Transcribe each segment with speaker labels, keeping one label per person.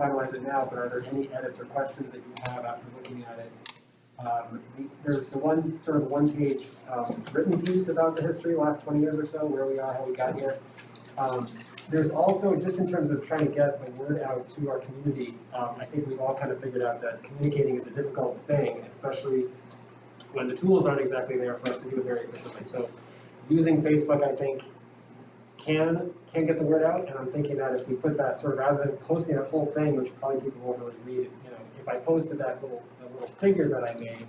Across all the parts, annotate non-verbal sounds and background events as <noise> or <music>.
Speaker 1: finalize it now, but are there any edits or questions that you have after looking at it? Um, the- There's the one, sort of one-page um, written piece about the history, last 20 years or so, where we are, how we got here. Um, There's also, just in terms of trying to get the word out to our community, um, I think we've all kind of figured out that communicating is a difficult thing, especially when the tools aren't exactly there for us to do it very efficiently. So using Facebook, I think, can, can get the word out, and I'm thinking that if we put that sort of, rather than posting that whole thing, which probably people won't really read, it, you know, if I posted that little, that little figure that I made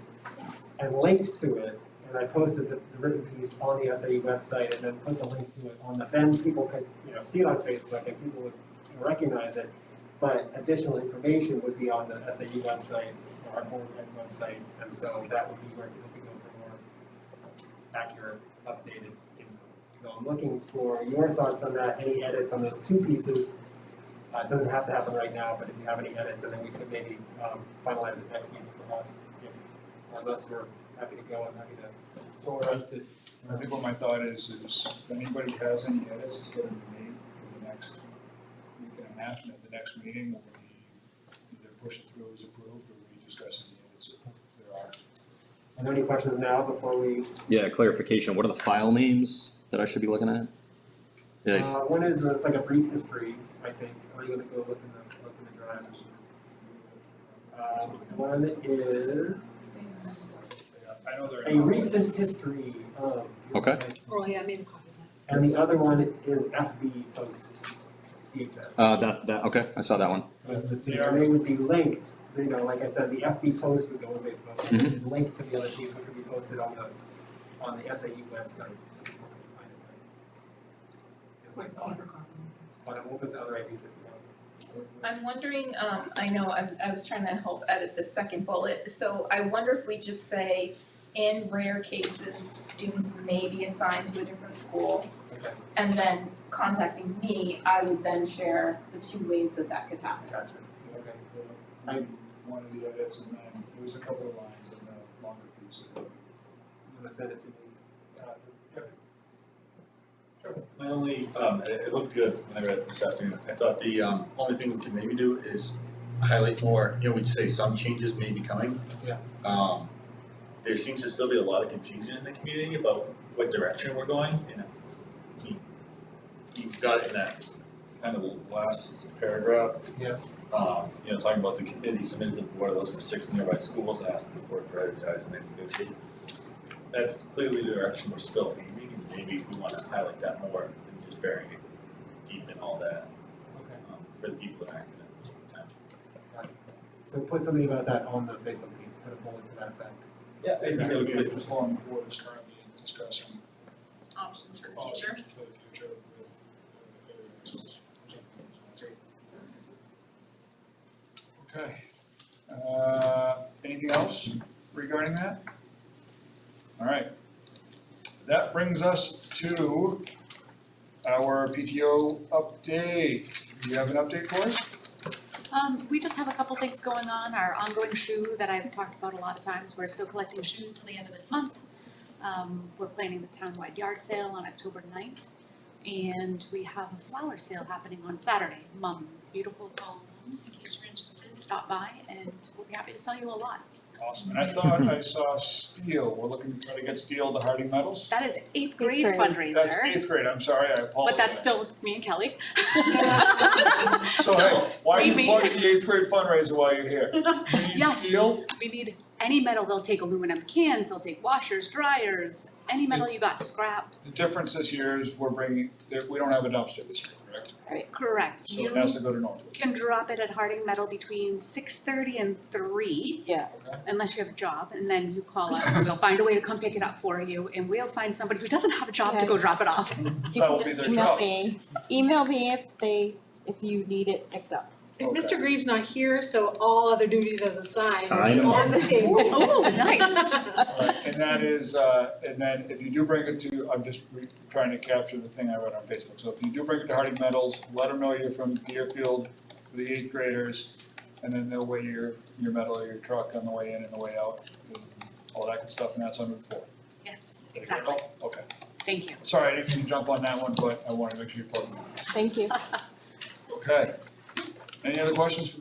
Speaker 1: and linked to it, and I posted the, the written piece on the SAU website and then put the link to it on the, then people could, you know, see it on Facebook and people would recognize it. But additional information would be on the SAU website, or our board ed website, and so that would be where people could go for more accurate, updated info. So I'm looking for your thoughts on that, any edits on those two pieces. Uh, it doesn't have to happen right now, but if you have any edits, and then we could maybe, um, finalize it next week for us, if, unless we're happy to go, I'm happy to.
Speaker 2: So what I was, I think what my thought is, is if anybody has any edits, it's gonna be made for the next week and a half, and at the next meeting, we'll be either push it through as approved, or we'll be discussing the edits if there are.
Speaker 1: Are there any questions now before we,
Speaker 3: Yeah, clarification, what are the file names that I should be looking at? Yeah, I
Speaker 1: uh,
Speaker 3: s-
Speaker 1: one is, uh, it's like a brief history, I think, are you gonna go look in the, look in the drives? Uh, one is
Speaker 2: I know there are.
Speaker 1: a recent history of. your
Speaker 3: Okay.
Speaker 1: high school.
Speaker 4: Oh, yeah, I made a copy of that.
Speaker 1: And the other one is FB post, CHS.
Speaker 3: uh, that, that, okay, I saw that one.
Speaker 1: Because it's- They would be linked, you know, like I said, the FB post would go on Facebook, and then it'd link to the other piece, which would be posted on the, on the SAU website. Is my
Speaker 4: It's my
Speaker 1: thought,
Speaker 4: paper copy.
Speaker 1: but I'm open to other ideas if you want.
Speaker 5: I'm wondering, um, I know, I, I was trying to help edit the second bullet, so I wonder if we just say, in rare cases, students may be assigned to a different school,
Speaker 1: Okay,
Speaker 5: and then contacting me, I would then share the two ways that that could happen.
Speaker 1: gotcha, okay, cool.
Speaker 2: I, one of the edits, and then there was a couple of lines in the longer piece.
Speaker 1: You wanna send it to me? Uh, okay.
Speaker 6: My only, um, it, it looked good when I read it this afternoon. I thought the, um, only thing we could maybe do is highlight more, you know, we'd say some changes may be coming.
Speaker 1: Yeah.
Speaker 6: Um, there seems to still be a lot of confusion in the community about what direction we're going, and I mean, you've got it in that kind of last paragraph.
Speaker 1: Yeah.
Speaker 6: Um, you know, talking about the committee submitted to the board a list of six nearby schools, asked the board to prioritize and negotiate that's clearly the direction we're still aiming, and maybe we wanna highlight that more than just burying it deep in all that,
Speaker 1: Okay,
Speaker 6: um, for the people that aren't gonna take the time.
Speaker 1: got it. So put something about that on the Facebook piece, put a bullet to that effect.
Speaker 6: Yeah, I think that was
Speaker 2: The
Speaker 6: good.
Speaker 2: form board is currently discussing
Speaker 5: Options for
Speaker 2: options for the future with uh, areas. Okay, uh, anything else regarding that? All right. That brings us to our PTO update. Do you have an update for us?
Speaker 7: Um, we just have a couple things going on, our ongoing shoe that I've talked about a lot of times, we're still collecting shoes till the end of this month. Um, we're planning the townwide yard sale on October 9th, and we have a flower sale happening on Saturday, mums, beautiful fall mums, in case you're interested, stop by and we'll be happy to sell you a lot.
Speaker 2: Awesome, and I thought I saw steel, we're looking to try to get steel to Harding Metals.
Speaker 7: That is eighth grade
Speaker 4: grade.
Speaker 7: fundraiser.
Speaker 2: That's eighth grade, I'm sorry, I apologize.
Speaker 7: But that's still me
Speaker 2: <laughs>
Speaker 7: and Kelly.
Speaker 2: So
Speaker 7: <laughs>
Speaker 2: hey, why are you
Speaker 7: save me.
Speaker 2: plugging the eighth grade fundraiser while you're here? You need
Speaker 7: Yes.
Speaker 2: steel?
Speaker 7: We need any metal, they'll take aluminum cans, they'll take washers, dryers, any metal you got, scrap.
Speaker 2: The difference this year is we're bringing, there- we don't have a dumpster this year, correct?
Speaker 7: Correct.
Speaker 2: So it has
Speaker 7: You
Speaker 2: to go to Northwood.
Speaker 7: can drop it at Harding Metal between six thirty and three,
Speaker 4: Yeah.
Speaker 7: unless you have a job, and then you call us and we'll find a way to come pick it up for you, and we'll find somebody who doesn't have a job to go drop it off.
Speaker 2: That will be their job.
Speaker 8: me, email me if they, if you need it picked up.
Speaker 4: And Mr. Greaves not here, so all other duties as assigned
Speaker 3: Sign
Speaker 4: is
Speaker 3: 'em
Speaker 4: on the table.
Speaker 7: Oh, nice.
Speaker 4: <laughs>
Speaker 2: Alright, And that is, uh, and then if you do bring it to, I'm just re- trying to capture the thing I read on Facebook. So if you do bring it to Harding Metals, let them know you're from Deerfield for the eighth graders. And then they'll weigh your, your metal, or your truck on the way in and the way out, and all that good stuff, and that's on Route four.
Speaker 7: Yes,
Speaker 2: Did I get it
Speaker 7: exactly.
Speaker 2: all? Okay,
Speaker 7: Thank you.
Speaker 2: sorry, I didn't mean to jump on that one, but I wanted to make sure you plugged it.
Speaker 8: Thank you.
Speaker 2: Okay. Any other questions for the